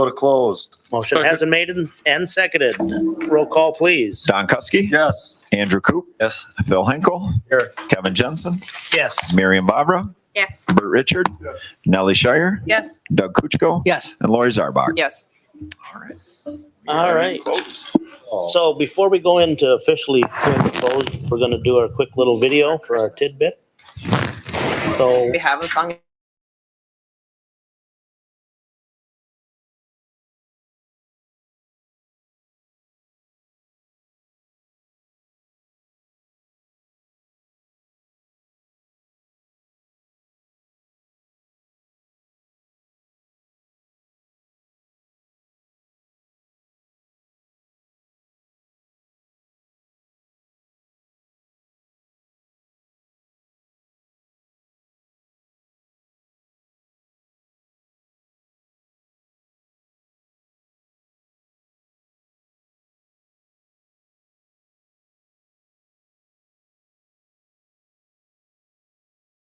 go to closed. Motion has been made and- and seconded. Roll call, please. Don Cuskey. Yes. Andrew Coop. Yes. Phil Henkel. Here. Kevin Jensen. Yes. Miriam Vavra. Yes. Bert Richard. Nellie Shire. Yes. Doug Kuchko. Yes. And Lori Zarbak. Yes. All right. So before we go into officially going to close, we're going to do our quick little video for our tidbit. So We have a song